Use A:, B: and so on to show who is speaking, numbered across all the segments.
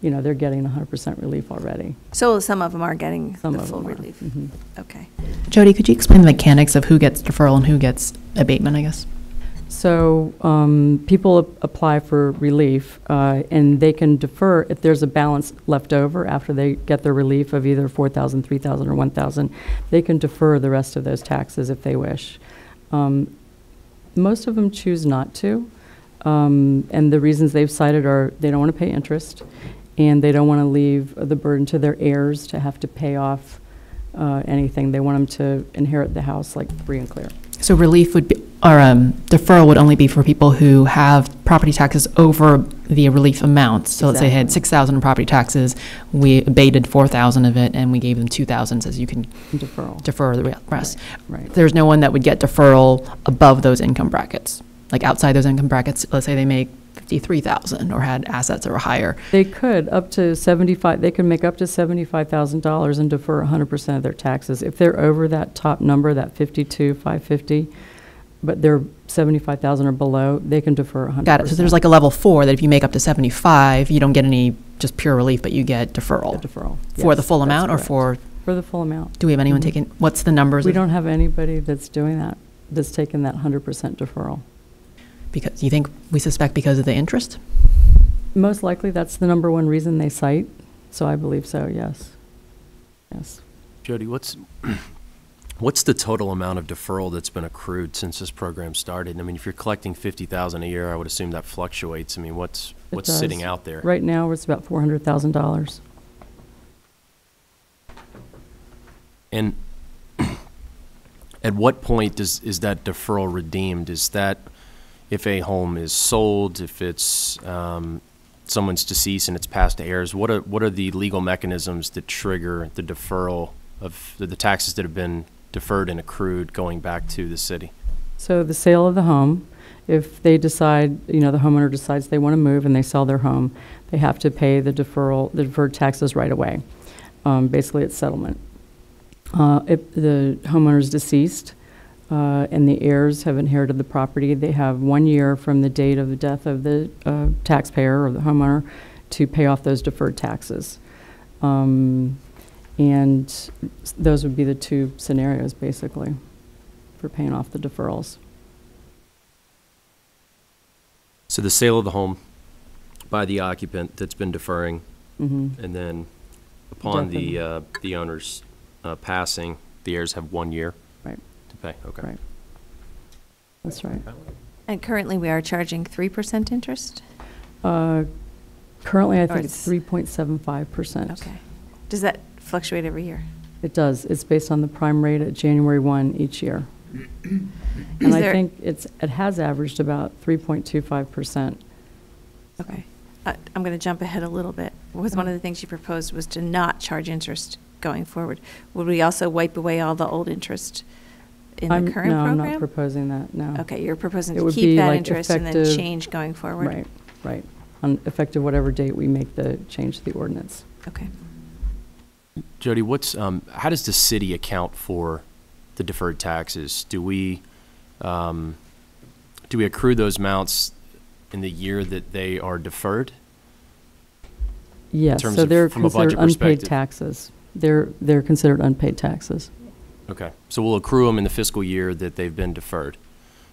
A: you know, they're getting 100% relief already.
B: So some of them are getting
A: Some
B: the
A: of
B: full
A: them are.
B: relief?
A: Mhm.
B: Okay.
C: Jody, could you explain the mechanics of who gets deferral and who gets abatement, I guess?
A: So um, people ap- apply for relief, uh, and they can defer if there's a balance left over after they get their relief of either 4,000, 3,000, or 1,000. They can defer the rest of those taxes if they wish. Um, Most of them choose not to, um, and the reasons they've cited are they don't want to pay interest, and they don't want to leave the burden to their heirs to have to pay off uh, anything. They want them to inherit the house like free and clear.
C: So relief would be, or um, deferral would only be for people who have property taxes over the relief amount. So let's say they had
A: Exactly.
C: 6,000 in property taxes, we abated 4,000 of it, and we gave them 2,000, says you can
A: Deferral,
C: defer the re- rest.
A: right.
C: There's no one that would get deferral above those income brackets, like outside those income brackets, let's say they make 53,000 or had assets that were higher.
A: They could, up to 75, they could make up to $75,000 and defer 100% of their taxes. If they're over that top number, that 52, 550, but they're 75,000 or below, they can defer 100%.
C: Got it. So there's like a level four that if you make up to 75, you don't get any just pure relief, but you get
A: The
C: deferral
A: Deferral.
C: for the
A: Yes,
C: full
A: that's
C: amount or
A: correct.
C: for,
A: For the full amount.
C: do we have anyone
A: Mhm.
C: taking, what's the numbers?
A: We
C: of-
A: don't have anybody that's doing that, that's taken that 100% deferral.
C: Because, you think, we suspect because of the interest?
A: Most likely, that's the number one reason they cite, so I believe so, yes. Yes.
D: Jody, what's, what's the total amount of deferral that's been accrued since this program started? I mean, if you're collecting fifty thousand a year, I would assume that fluctuates. I mean, what's,
A: It
D: what's sitting
A: does.
D: out there?
A: Right now, it's about $400,000.
D: And at what point does, is that deferral redeemed? Is that if a home is sold, if it's, um, someone's deceased and it's passed to heirs? What are, what are the legal mechanisms that trigger the deferral of, the the taxes that have been deferred and accrued going back to the city?
A: So the sale of the home, if they decide, you know, the homeowner decides they want to move and they sell their home, they have to pay the deferral, the deferred taxes right away. Um, Basically, it's settlement. Uh, If the homeowner's deceased uh, and the heirs have inherited the property, they have one year from the date of the death of the uh, taxpayer or the homeowner to pay off those deferred taxes. Um, And s- those would be the two scenarios, basically for paying off the deferrals.
D: So the sale of the home by the occupant that's been deferring,
A: Mm-hmm.
D: and then upon the,
A: Definitely.
D: uh, the owner's uh, passing, the heirs have one year
A: Right,
D: to pay, okay.
A: right. That's right.
B: And currently, we are charging 3% interest?
A: Uh, Currently, I
B: Or
A: think it's
B: it's-
A: 3.75%.
B: Okay. Does that fluctuate every year?
A: It does. It's based on the prime rate at January 1 each year. And
B: Is
A: I
B: there-
A: think it's, it has averaged about 3.25%.
B: Okay. I- Uh, I'm going to jump ahead a little bit. Was one of the things you proposed was to not charge interest going forward. Would we also wipe away all the old interest in
A: I'm-
B: the current
A: No, I'm
B: program?
A: not proposing that, no.
B: Okay, you're proposing
A: It
B: to
A: would be
B: keep that
A: like
B: interest and then
A: effective-
B: change going forward?
A: Right, right. On effective whatever date we make the change to the ordinance.
B: Okay.
D: Jody, what's, um, how does the city account for the deferred taxes? Do we, um, do we accrue those amounts in the year that they are deferred?
A: Yes,
D: terms
A: so
D: of-
A: they're
D: from a budget
A: considered unpaid
D: perspective.
A: taxes. They're, they're considered unpaid taxes.
D: Okay, so we'll accrue them in the fiscal year that they've been deferred.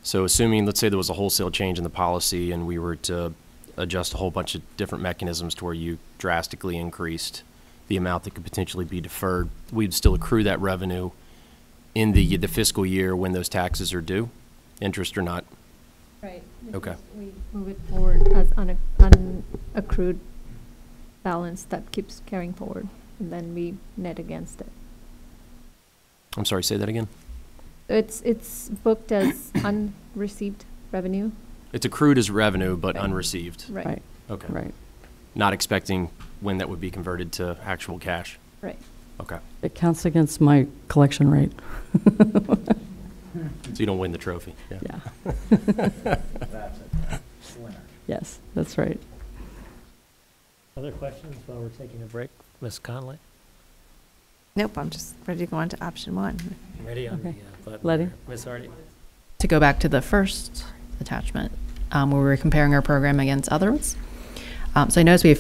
D: So assuming, let's say there was a wholesale change in the policy and we were to adjust a whole bunch of different mechanisms to where you drastically increased the amount that could potentially be deferred, we'd still accrue that revenue in the, the fiscal year when those taxes are due, interest or not.
E: Right. this
D: Okay.
E: is- We move it forward as an an accrued balance that keeps carrying forward, and then we net against it.
D: I'm sorry, say that again?
E: It's, it's booked as unreceived revenue,
D: It's accrued as revenue but
E: Right.
D: unreceived.
E: right?
D: Okay.
A: Right.
D: Not expecting when that would be converted to actual cash.
E: Right.
D: Okay,
A: It counts against my collection rate.
D: so you don't win the trophy. Yeah.
A: Yeah. Yes, that's right.
F: Other questions while we're taking a break? Ms. Conley,
B: Nope, I'm just ready to go on to option one.
F: ready on the uh,
A: Okay.
F: button?
A: Letty?
F: there. Ms. Hardy?
C: To go back to the first attachment, um, where we were comparing our program against others. Um, So I noticed we have